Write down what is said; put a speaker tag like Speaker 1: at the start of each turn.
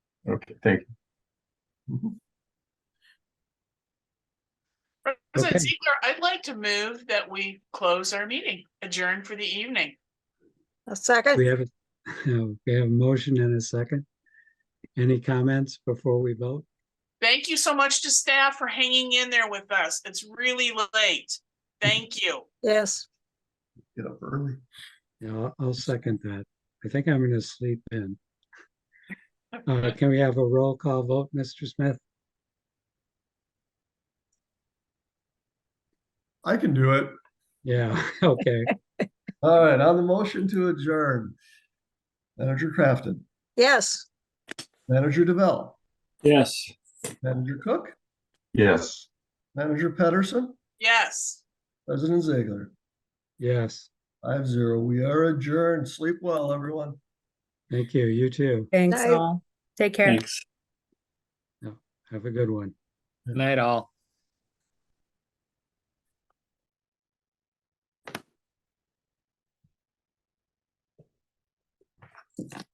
Speaker 1: Okay, thank Mm-hmm.
Speaker 2: President
Speaker 1: Okay.
Speaker 2: Ziegler, I'd like to move that we close our meeting, adjourn for the evening.
Speaker 3: A second?
Speaker 4: We have, a- we have a motion and a second. Any comments before we vote?
Speaker 2: Thank you so much to staff for hanging in there with us. It's really late. Thank you.
Speaker 3: Yes.
Speaker 1: you. Get up early.
Speaker 4: Yeah, I'll- I'll second that. I think I'm gonna sleep in. Uh, can we have a roll call vote, Mr. Smith?
Speaker 5: I can do it.
Speaker 4: Yeah, okay.
Speaker 5: All right, on the motion to adjourn. Manager Crafton,
Speaker 3: Yes.
Speaker 5: Manager DeVell,
Speaker 6: Yes.
Speaker 5: Manager Cook,
Speaker 1: Yes.
Speaker 5: Manager Pedersen,
Speaker 2: Yes.
Speaker 5: President Ziegler.
Speaker 4: Yes,
Speaker 5: Five zero. We are adjourned. Sleep well, everyone.
Speaker 4: thank you. You too.
Speaker 7: Thanks
Speaker 3: Night.
Speaker 7: all. Take care.
Speaker 6: Thanks.
Speaker 4: Have a good one.
Speaker 6: Good night, all.